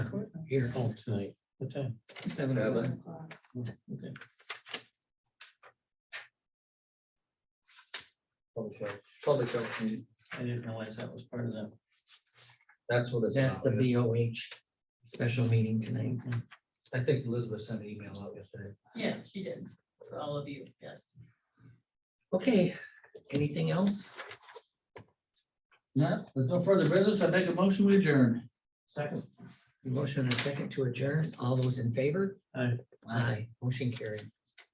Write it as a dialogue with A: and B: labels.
A: here,
B: Oh, tonight, what time?
A: seven
C: Seven.
A: o'clock.
D: o'clock.
B: Okay.
C: Public health, public health committee,
B: I didn't realize that was part of that.
C: that's what it's.
A: That's the
C: about.
A: BOH special meeting tonight.
C: I think Elizabeth sent an email out yesterday.
D: Yeah, she did, for all of you, yes.
A: Okay, anything else?
B: No, there's no further business. I make a motion we adjourn. Second.
A: Motion and a second to adjourn. All those in favor?
B: Aye.
A: Aye, motion carried.